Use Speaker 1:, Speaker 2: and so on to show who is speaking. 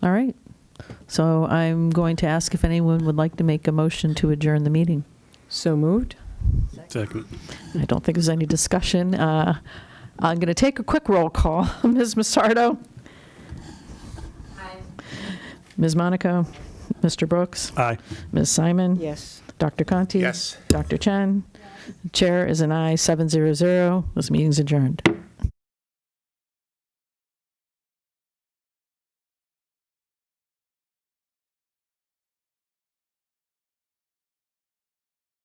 Speaker 1: All right. So I'm going to ask if anyone would like to make a motion to adjourn the meeting.
Speaker 2: So moved?
Speaker 3: Second.
Speaker 1: I don't think there's any discussion. Uh, I'm going to take a quick roll call. Ms. Massardo? Ms. Monaco? Mr. Brooks?
Speaker 3: Aye.
Speaker 1: Ms. Simon?
Speaker 2: Yes.
Speaker 1: Dr. Conti?
Speaker 3: Yes.
Speaker 1: Dr. Chen? Chair is an aye, 700. This meeting's adjourned.